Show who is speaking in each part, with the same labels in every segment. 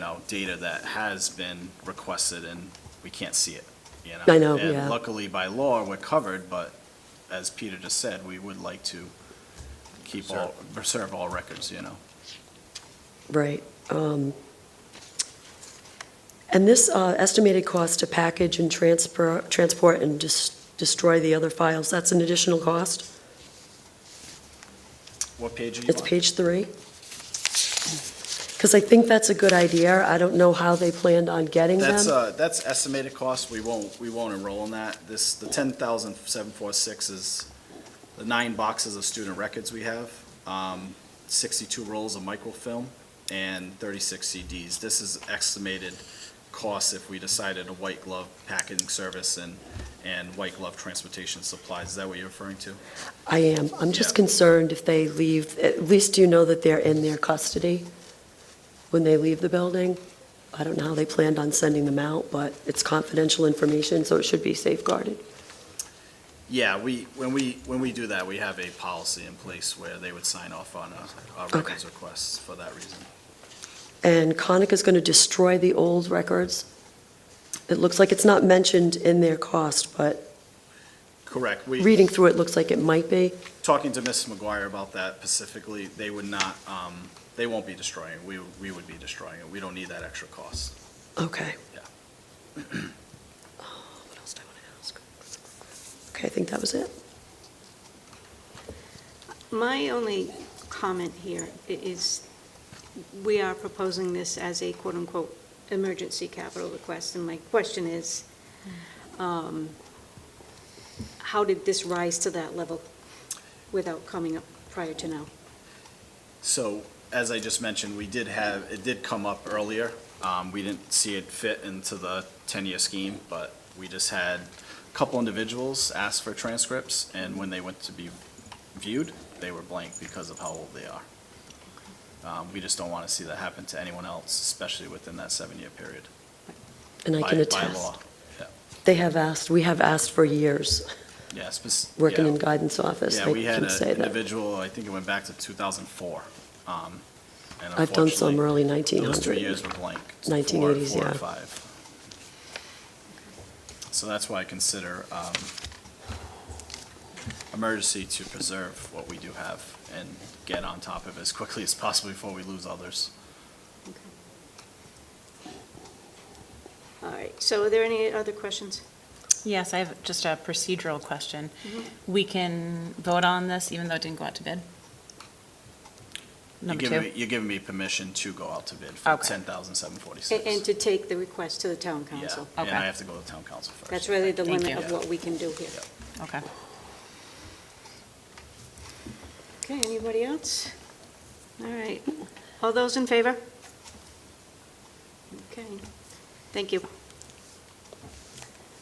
Speaker 1: know, data that has been requested and we can't see it, you know?
Speaker 2: I know, yeah.
Speaker 1: And luckily by law, we're covered, but as Peter just said, we would like to keep all, preserve all records, you know?
Speaker 2: Right. um, And this uh, estimated cost to package and transfer, transport and dis- destroy the other files, that's an additional cost?
Speaker 1: What page are you on?
Speaker 2: It's page three? Because I think that's a good idea. I don't know how they planned on getting
Speaker 1: That's,
Speaker 2: them.
Speaker 1: uh, that's estimated cost, we won't, we won't enroll in that. This, the ten thousand seven four six is the nine boxes of student records we have, um, sixty-two rolls of microfilm, and thirty-six CDs. This is estimated cost if we decided a white glove packaging service and, and white glove transportation supplies. Is that what you're referring to?
Speaker 2: I am. I'm just
Speaker 1: Yeah.
Speaker 2: concerned if they leave, at least you know that they're in their custody when they leave the building. I don't know how they planned on sending them out, but it's confidential information, so it should be safeguarded.
Speaker 1: Yeah, we, when we, when we do that, we have a policy in place where they would sign off on a, a records requests for that reason.
Speaker 2: And Conic is going to destroy the old records. It looks like it's not mentioned in their cost, but
Speaker 1: Correct, we.
Speaker 2: reading through it looks like it might be.
Speaker 1: talking to Mrs. McGuire about that specifically, they would not, um, they won't be destroying it. We, we would be destroying it. We don't need that extra cost.
Speaker 2: Okay.
Speaker 1: Yeah.
Speaker 2: Uh, What else do I want to ask? Okay, I think that was it.
Speaker 3: My only comment here i- is, we are proposing this as a quote-unquote emergency capital request, and my question is, um, how did this rise to that level without coming up prior to now?
Speaker 1: So, as I just mentioned, we did have, it did come up earlier. Um, we didn't see it fit into the ten-year scheme, but we just had a couple individuals ask for transcripts, and when they went to be viewed, they were blank because of how old they are. Um, we just don't want to see that happen to anyone else, especially within that seven-year period.
Speaker 2: And I
Speaker 1: by-
Speaker 2: can
Speaker 1: by
Speaker 2: attest.
Speaker 1: law.
Speaker 2: They have asked, we have asked for years,
Speaker 1: Yeah, spec-
Speaker 2: working
Speaker 1: yeah.
Speaker 2: in guidance office.
Speaker 1: Yeah,
Speaker 2: I
Speaker 1: we had
Speaker 2: can
Speaker 1: an
Speaker 2: say that.
Speaker 1: individual, I think it went back to 2004. um, and
Speaker 2: I've done some
Speaker 1: unfortunately,
Speaker 2: early
Speaker 1: Those two
Speaker 2: 1900.
Speaker 1: years were blank. four-
Speaker 2: 1980s,
Speaker 1: Four or
Speaker 2: yeah.
Speaker 1: five. So that's why I consider um, emergency to preserve what we do have and get on top of it as quickly as possible before we lose others.
Speaker 3: All right, so are there any other questions?
Speaker 4: Yes, I have just a procedural question. We can vote on this even though it didn't go out to bid?
Speaker 1: You're
Speaker 4: Number
Speaker 1: giving me-
Speaker 4: two?
Speaker 1: you're giving me permission to go out to bid for
Speaker 4: Okay.
Speaker 3: A- And
Speaker 1: 10,746.
Speaker 3: to take the request to the town
Speaker 1: Yeah,
Speaker 3: council?
Speaker 1: and
Speaker 4: Okay.
Speaker 1: I have to go to town council first.
Speaker 3: That's really the
Speaker 4: Thank
Speaker 3: limit
Speaker 4: you.
Speaker 3: of what we can do here.
Speaker 4: Okay.
Speaker 3: Okay, anybody else? All right. All those in favor? Okay, thank you.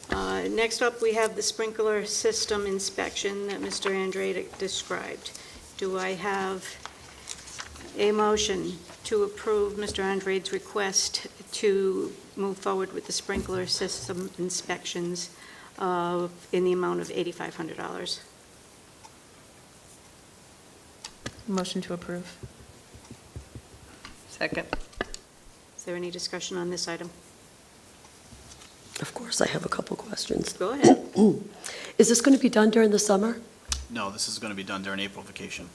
Speaker 3: Uh, Next up, we have the sprinkler system inspection that Mr. Andrade described. Do I have a motion to approve Mr. Andrade's request to move forward with the sprinkler system inspections of, in the amount of $8,500?
Speaker 4: Motion to approve.
Speaker 5: Second.
Speaker 3: Is there any discussion on this item?
Speaker 2: Of course, I have a couple questions.
Speaker 3: Go ahead.
Speaker 2: Is this going to be done during the summer?
Speaker 1: No, this is going to be done during April vacation.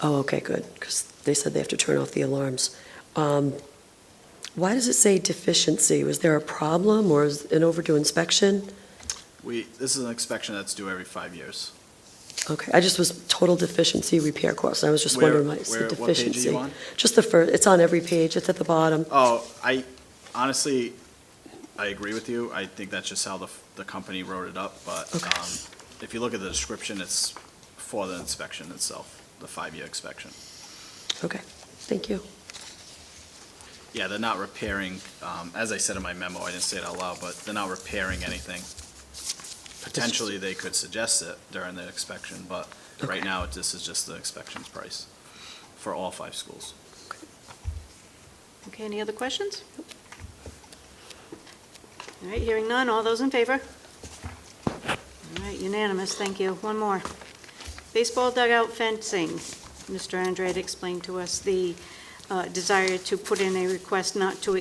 Speaker 2: Oh, okay, good, because they said they have to turn off the alarms. Um, Why does it say deficiency? Was there a problem or is it overdue inspection?
Speaker 1: We, this is an inspection that's due every five years.
Speaker 2: Okay, I just was total deficiency repair cost, and I was just
Speaker 1: Where-
Speaker 2: wondering why it
Speaker 1: where-
Speaker 2: said
Speaker 1: what page are you
Speaker 2: deficiency.
Speaker 1: on?
Speaker 2: Just the first, it's on every page, it's at the bottom.
Speaker 1: Oh, I, honestly, I agree with you. I think that's just how the, the company wrote it up, but,
Speaker 2: Okay.
Speaker 1: um, if you look at the description, it's for the inspection itself, the five-year inspection.
Speaker 2: Okay, thank you.
Speaker 1: Yeah, they're not repairing, um, as I said in my memo, I didn't say it out loud, but they're not repairing anything. Potentially, they could suggest it during the inspection, but right
Speaker 2: Okay.
Speaker 1: now, this is just the inspections price for all five schools.
Speaker 3: Okay, any other questions? All right, hearing none, all those in favor? All right, unanimous, thank you. One more. Baseball dugout fencing. Mr. Andrade explained to us the uh, desire to put in a request not to